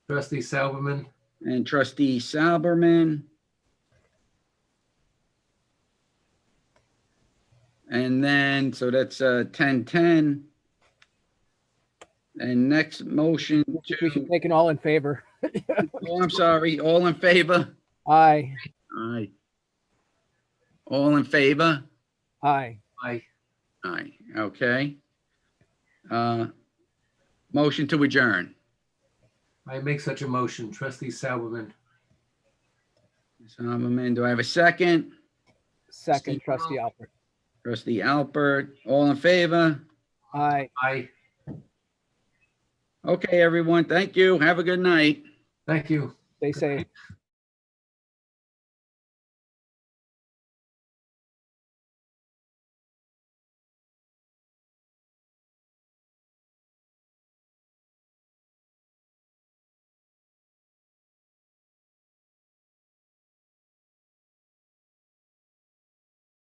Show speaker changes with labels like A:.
A: Trustee Salomon,
B: and trustee Salberman. And then, so that's uh 10-10. And next motion
C: We should
B: to,
C: make an all in favor.
B: oh, I'm sorry, all in favor?
C: Aye,
B: Aye. All in favor?
C: aye.
A: aye.
B: Aye, okay. Uh Motion to adjourn.
A: I make such a motion. Trustee Salomon.
B: Salberman, do I have a second?
C: Second,
B: Steve
C: trustee Alpert.
B: Trustee Alpert, all in favor?
C: Aye.
A: aye.
B: Okay, everyone, thank you. Have a good night.
A: Thank you.
C: They say